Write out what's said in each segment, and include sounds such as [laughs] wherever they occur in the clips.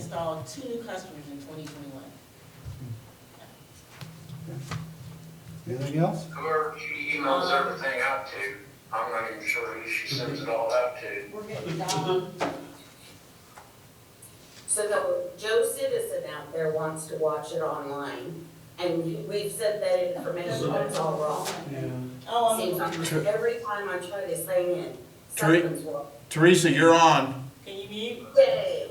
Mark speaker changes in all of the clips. Speaker 1: installed two new customers in twenty twenty-one.
Speaker 2: Anything else?
Speaker 3: Whoever she emails everything out to, I'm not even sure who she sends it all out to.
Speaker 1: We're getting Dom,
Speaker 4: So no, Joe Citizen out there wants to watch it online, and we've said that information, but it's all wrong.
Speaker 1: oh, I
Speaker 4: Seems
Speaker 1: mean,
Speaker 4: like every time I try to sign in,
Speaker 5: Three.
Speaker 4: something's wrong.
Speaker 5: Teresa, you're on.
Speaker 1: can you mute?
Speaker 4: Yay,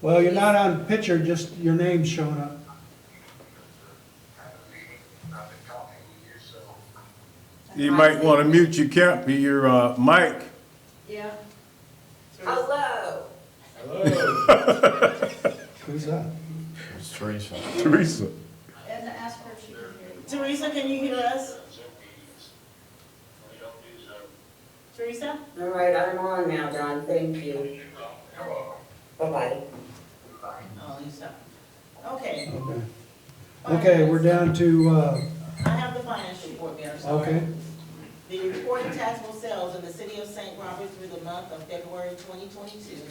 Speaker 2: Well, you're not on picture, just your name's showing up.
Speaker 3: I've been talking to you, so.
Speaker 6: You might want to mute your cap, your uh, mic. [laughs]
Speaker 7: Yeah,
Speaker 4: hello,
Speaker 2: Who's that?
Speaker 5: It's Teresa.
Speaker 6: Teresa,
Speaker 7: and ask her if she can hear you.
Speaker 1: Teresa, can you hear us?
Speaker 3: Zoom meetings. We don't do Zoom.
Speaker 1: Teresa?
Speaker 4: all right, I'm on now, Don, thank you,
Speaker 3: You're welcome.
Speaker 4: bye-bye.
Speaker 1: Oh, you stop. Okay.
Speaker 2: Okay, Okay, we're down to, uh,
Speaker 1: I have the finance report, Mayor, sorry.
Speaker 2: okay,
Speaker 1: The reported taxable sales in the city of St. Robert through the month of February twenty twenty-two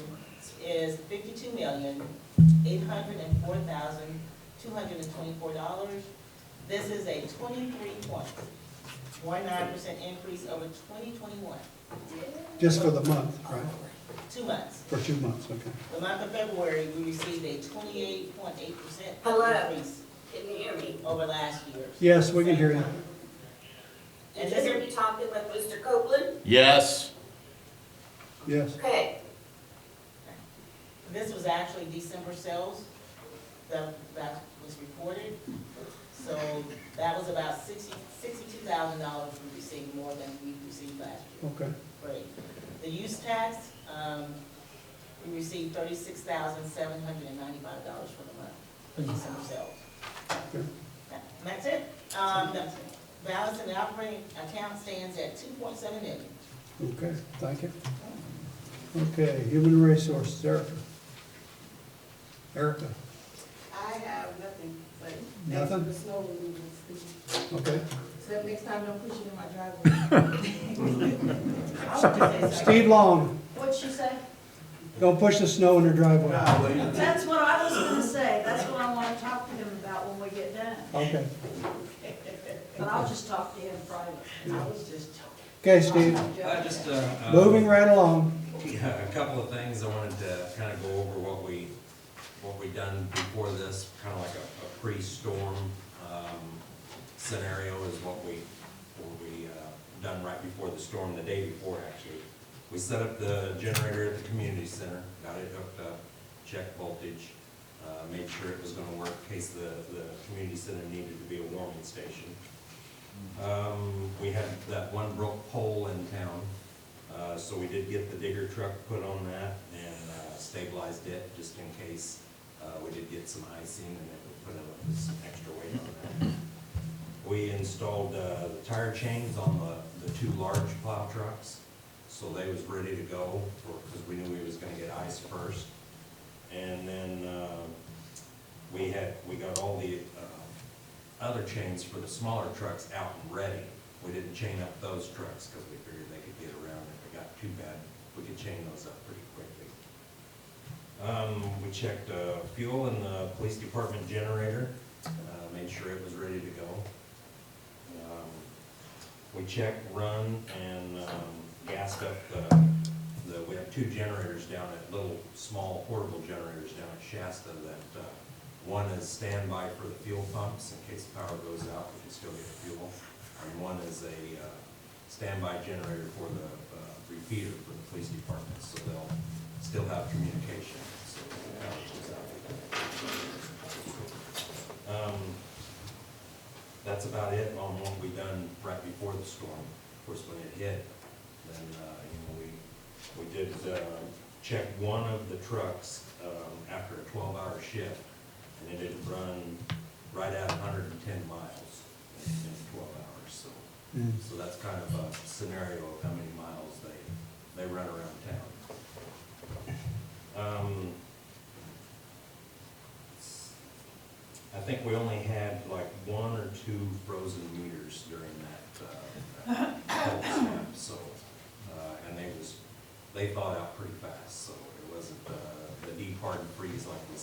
Speaker 1: is fifty-two million, eight hundred and four thousand, two hundred and twenty-four dollars. This is a twenty-three point one nine percent increase over twenty twenty-one,
Speaker 2: just for the month, right?
Speaker 1: two months.
Speaker 2: For two months, okay.
Speaker 1: The month of February, we received a twenty-eight point eight percent
Speaker 4: Hello.
Speaker 1: increase
Speaker 4: Can you hear me?
Speaker 1: over last year.
Speaker 2: Yes, we can hear you.
Speaker 4: Did you hear me talking with Mr. Copeland?
Speaker 5: Yes.
Speaker 2: Yes.
Speaker 4: Okay,
Speaker 1: This was actually December sales that, that was reported. So that was about sixty, sixty-two thousand dollars we received more than we received last year.
Speaker 2: Okay,
Speaker 1: Great. The use tax, um, we received thirty-six thousand seven hundred and ninety-five dollars for the month, for December sales.
Speaker 2: Good.
Speaker 1: That- and That's it. Um, the balance in the operating account stands at two point seven million.
Speaker 2: okay, thank you. Okay, human resources, Erica. Erica,
Speaker 7: I have nothing, but thanks for
Speaker 2: Nothing?
Speaker 7: the snow removal.
Speaker 2: okay.
Speaker 7: So next time, don't push it in my driveway.
Speaker 1: I would just say so.
Speaker 2: Steve Long,
Speaker 7: What'd she say?
Speaker 2: don't push the snow in her driveway.
Speaker 7: That's what I was gonna say, that's what I wanna talk to him about when we get done,
Speaker 2: Okay,
Speaker 7: but I'll just talk to him private.
Speaker 1: I was just joking.
Speaker 2: okay, Steve,
Speaker 8: I just, uh, uh,
Speaker 2: moving right along.
Speaker 8: yeah, [laughs] a couple of things I wanted to kind of go over what we, what we done before this, kind of like a, a pre-storm, um, scenario is what we, what we, uh, done right before the storm, the day before actually. We set up the generator at the community center, got it hooked up, checked voltage, uh, made sure it was gonna work in case the, the community center needed to be a warming station. Um, we had that one broke pole in town, uh, so we did get the digger truck put on that and uh, stabilized it just in case. Uh, we did get some icing and it would put a, some extra weight on that. We installed, uh, the tire chains on the, the two large plow trucks, so they was ready to go for, because we knew we was gonna get ice first. And then, uh, we had, we got all the, uh, other chains for the smaller trucks out and ready. We didn't chain up those trucks because we figured they could get around if it got too bad. We could chain those up pretty quickly. Um, we checked, uh, fuel in the police department generator, uh, made sure it was ready to go. Um, We checked, run, and, um, gassed up uh, the, the, we have two generators down at, little, small portable generators down at Shasta that, uh, one is standby for the fuel pumps in case power goes out, we can still get fuel. And one is a uh, standby generator for the uh, repeater for the police department, so they'll still have communication. So if power goes out, they can- Um, That's about it on what we done right before the storm. Of course, when it hit, then, uh, you know, we we did uh, check one of the trucks um, after a 12-hour shift, and it had run right at 110 miles in in 12 hours, so.
Speaker 2: Mm.
Speaker 8: So that's kind of a scenario of how many miles they, they run around town. Um, I think we only had like one or two frozen meters during that, uh, that whole snap, so, uh, and they was, they thawed out pretty fast, so it wasn't, uh, the deep hard freeze like we